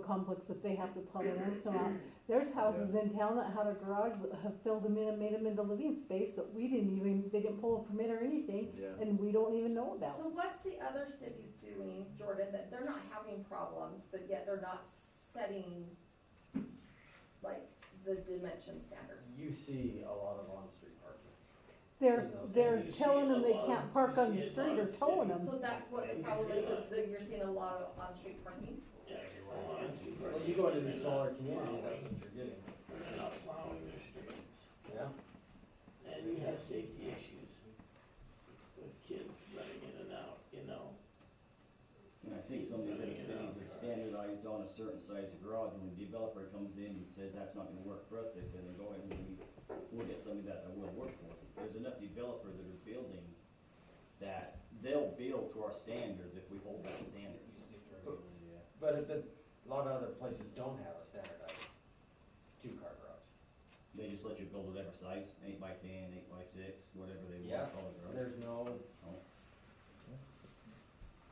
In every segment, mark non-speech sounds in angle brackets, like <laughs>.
complex that they have to plug in their snow out. There's houses in town that had a garage that have filled them in and made them into living space that we didn't even, they didn't pull a permit or anything, Yeah. and we don't even know about. So what's the other cities doing, Jordan, that they're not having problems, but yet they're not setting like the dimension standard? You see a lot of on-street parking. They're, You know, they're you see telling it a them they lot. can't park on You the see it a lot street or of towing cities. them. So that's what the problem is, is that you're seeing a lot of on-street parking. Yeah, you're well on street. Well, you go into the They're smaller not communities, that's plowing. what you're getting. They're not plowing their streets, Yeah. and you have safety issues with kids running in and out, you know? And I think some of the other cities have standardized on a certain size of garage, and when the developer comes in and says, that's not gonna work for us, they say, then go ahead and we, we'll get somebody that will work for it. There's enough developers that are building that they'll build to our standards if we hold that standard. But, but a lot of other places don't have a standardized two-car garage. They just let you build whatever size, eight by ten, eight by six, whatever they Yeah. want, call it. There's no,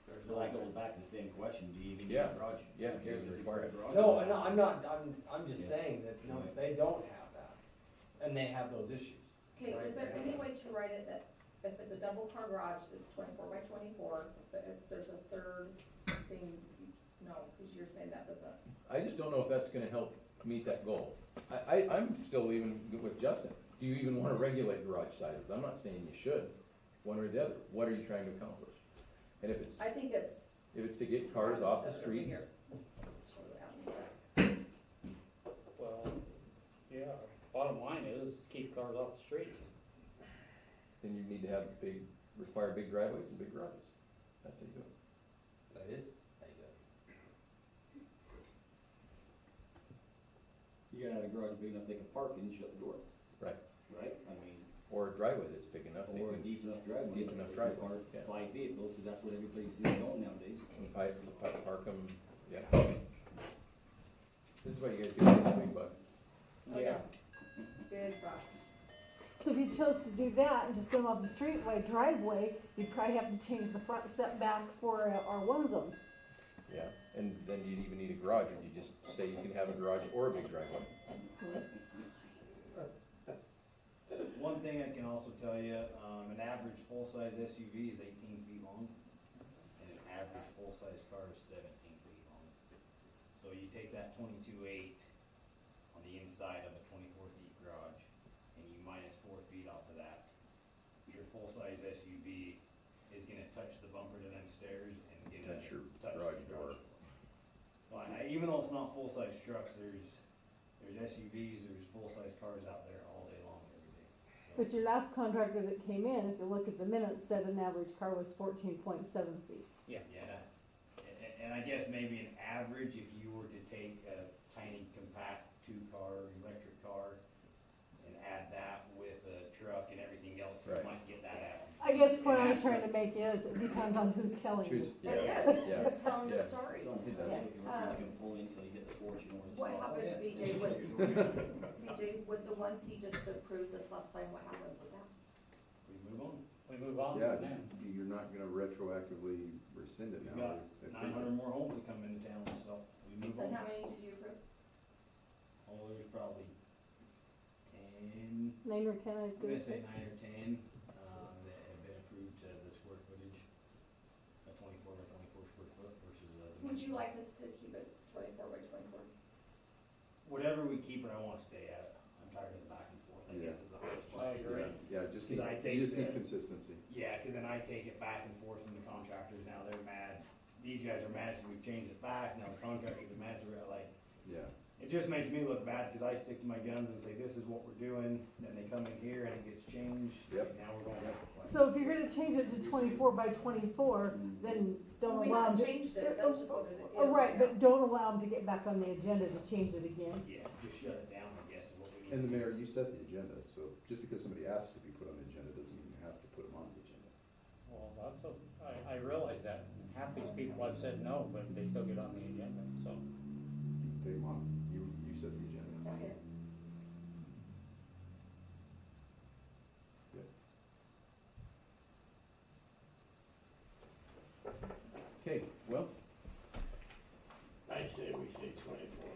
there's So that goes no. back to the same question, do you even need Yeah. a garage? Yeah, it is required. No, no, I'm not, I'm, I'm just Yeah. saying that, no, Right. they don't have that, and they have those issues. Okay, Right. is there any way to write it that if it's a double car garage, it's twenty-four by twenty-four, but if there's a third thing, no, because you're saying that doesn't. I just don't know if that's gonna help meet that goal. I, I, I'm still even good with Justin. Do you even wanna regulate garage sizes? I'm not saying you should, one or the other. What are you trying to accomplish? And if it's, I think it's. if it's to get cars off the It's over streets, here. It's totally out in the back. Well, yeah, bottom line is keep cars off the streets. then you need to have big, require big driveways and big garages. That's how you do it. That is, how you do it. You gotta have a garage big enough they can park in and shut the door, Right. right? I mean. Or a driveway that's big enough, that you Or a can- deep enough driveway. Deep enough driveway, Park yeah. Five vehicles, because that's what everybody sees going nowadays. and pipe, pipe, park them, yeah. This is why you guys get the big bucks. Oh, yeah. Big box. So if you chose to do that and just go off the street by driveway, you'd probably have to change the front setback for uh, our one zone. Yeah, and then you'd even need a garage, and you just say you can have a garage or a big driveway. One thing I can also tell you, um, an average full-size SUV is eighteen feet long, and an average full-size car is seventeen feet long. So you take that twenty-two eight on the inside of a twenty-four feet garage, and you minus four feet off of that, your full-size SUV is gonna touch the bumper to them stairs and gonna Touch your touch the garage door. garage door. Well, I- even though it's not full-size trucks, there's, there's SUVs, there's full-size cars out there all day long every day. so. But your last contractor that came in, if you look at the minutes, said an average car was fourteen point seven feet. Yeah, and, and I guess maybe an average, if you were to take a tiny compact two-car, electric car, and add that with a truck and everything else, you Right. might get that out. I guess the point I was trying to make is, it depends on who's telling Choose, you. But yeah, yes, yeah. just telling yeah. the story. Yeah. gonna pull in until you hit the porch, you know where to What stop. <laughs> happens, BJ, with, BJ, with the ones he just approved this last time, what happens with that? We move on. We move on Yeah, from them. you- you're not gonna retroactively rescind it We've got now. If nine hundred more homes that come into town, so we move And on. how many did you approve? Oh, there's probably ten, Nine or ten, I was I'm gonna gonna say say. nine or ten, um, that have been approved to the square footage, a twenty-four by twenty-four square foot versus a. Would you like us to keep it twenty-four by twenty-four? Whatever we keep it, I wanna stay at it. I'm tired of the back and forth, I Yeah. guess is the hardest Oh, part. you're right. Yeah, just Because keep, I you take just need the- consistency. Yeah, cause then I take it back and forth from the contractors, now they're mad, these guys are mad, so we've changed it back, now the contractors are mad, so we're like, Yeah, it just makes me look bad, cause I stick to my guns and say, this is what we're doing, then they come in here and it gets changed, Yep. now we're going up. So if you're gonna change it to twenty-four by twenty-four, Mm-hmm. then don't We allow haven't them. changed it, that's just what it is. Oh, right, but don't allow them to get back on the agenda to change it again. Yeah, just shut it down, I guess, is what we need. and the mayor, you set the agenda, so just because somebody asks to be put on the agenda doesn't mean you have to put them on the agenda. Well, that's, a- I, I realize that. Half these people have said no, but they still get on the agenda, so. You Take them on, you, you set the agenda. Okay. Okay, well, I say we say twenty-four.